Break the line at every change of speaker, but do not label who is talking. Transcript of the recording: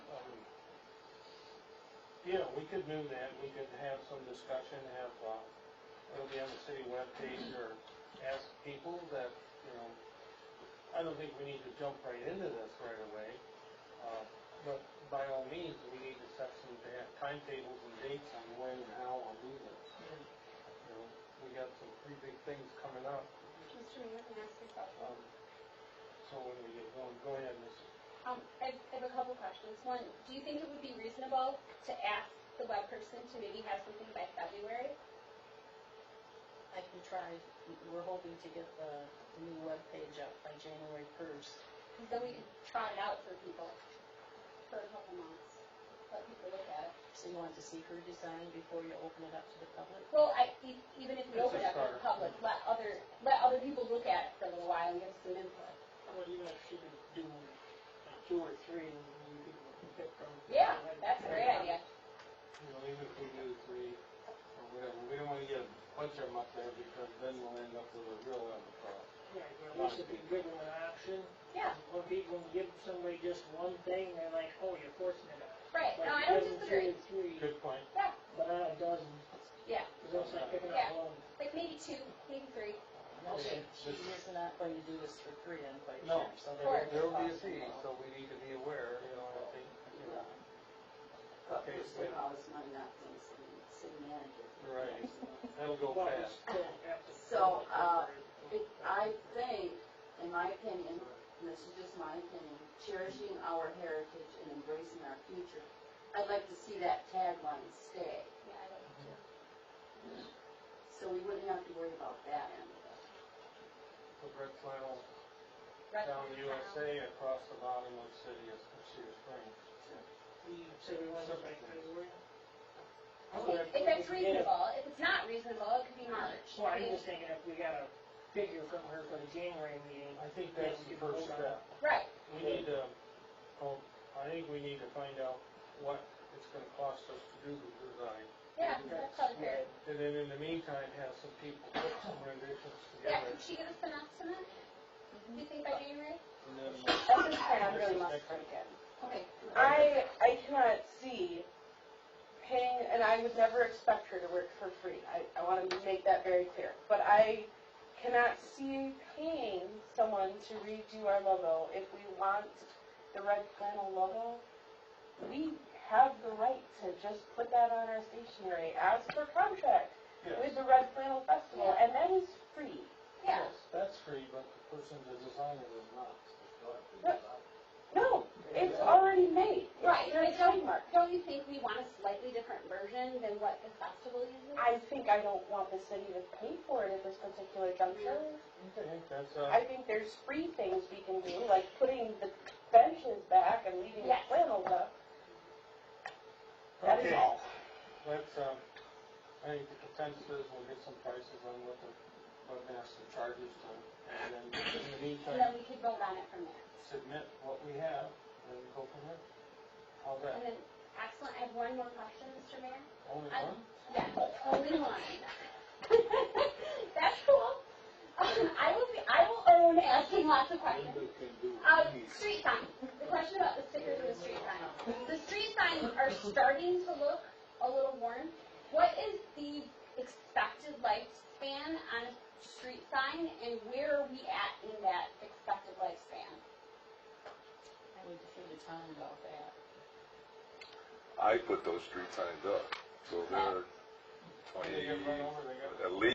Yeah, we could do that, we could have some discussion, have, uh, it'll be on the city webpage, or ask people that, you know, I don't think we need to jump right into this right away, uh, but by all means, we need to set some da- timetables and dates on when and how we'll do this. You know, we got some pretty big things coming up,
Mr. Mayor, can I ask a question?
um, so when we get going, go ahead, Mrs.
Um, I I have a couple questions. One, do you think it would be reasonable to ask the web person to maybe have something by February?
I can try, we're hoping to get the new webpage up by January 1st.
Because then we could trot it out for people for a couple months, let people look at it.
So you want to see her design before you open it up to the public?
Well, I, e- even if
It's
we
a
open it up to the
start.
public, let other, let other people look at it for a little while and give some input.
Well, even if she could do two or three, you could pick from.
Yeah, that's a great idea.
You know, even if we do three or whatever, we don't wanna get a bunch of them up there because then we'll end up with a real overcrowd.
Right, well, this would be good with an option.
Yeah,
When people give somebody just one thing, they're like, oh, you're forcing it on.
right. No, I don't disagree.
Like, if you give them two or three,
Good point.
Yeah,
but on a dozen,
yeah.
it's almost like picking
Yeah.
up one.
Like maybe two, maybe three.
No, she,
Okay.
she is not going to do this for free, I'm quite
No.
sure. So
Of course.
There
there
will be a
cost
fee,
involved.
so we need to be aware, you know, I think, you know,
But first of all, it's money not from the city, city manager.
Right. that'll go
Well,
fast.
it's still have to-
So, uh, It- I think, in my opinion, and this is just my opinion, cherishing our heritage and embracing our future. I'd like to see that tagline stay,
Yeah, I don't know.
so we wouldn't have to worry about that end of it.
Put red flannel
Rest
down
of
the
the town.
USA across the bottom of city of Cedar Springs.
You said we wanted to make February?
If that's reasonable, if it's not reasonable, it could be March.
Well,
I
I'm
mean,
just thinking if we got a figure from her for the January meeting,
I think that's the first step.
Right,
We need to, um, I think we need to find out what it's gonna cost us to do the design.
yeah, that's probably fair.
And then in the meantime, have some people put some renditions
Yeah,
together.
could she give us an estimate? Do you think by January?
And then uh,
At this point, I really must break in.
Okay.
I I cannot see paying, and I would never expect her to work for free. I, I want to make that very clear. But I cannot see paying someone to redo our logo if we want the red flannel logo. We have the right to just put that on our stationery as per contract
Yes,
with the Red Flannel Festival, and that is free.
Yeah,
yes, that's free, but the person, the designer is not.
No, it's already made. It's
right,
their
but don't,
trademark.
don't you think we want a slightly different version than what the festival uses?
I think I don't want the city to pay for it at this particular juncture.
Okay, that's,
I
uh,
think there's free things we can do, like putting the benches back and leaving the
Yes.
flannels up. That is
okay,
all.
let's, um, I think the consensus is we'll get some prices on what the webmaster charges to, and then in the
And then
meantime,
we could vote on it from there.
submit what we have, and go from there. How's
And
that?
then, excellent, I have one more question, Mr. Mayor.
Only
I-
one?
Yeah, only one. That's cool. I will be, I will own asking lots of questions. Uh, street signs, the question about the stickers and the street signs. The street signs are starting to look a little worn. What is the expected lifespan on a street sign, and where are we at in that expected lifespan?
I need to figure time about that.
I put those street signs up, so
They
they're twenty,
Oh, get run over, they got-
at least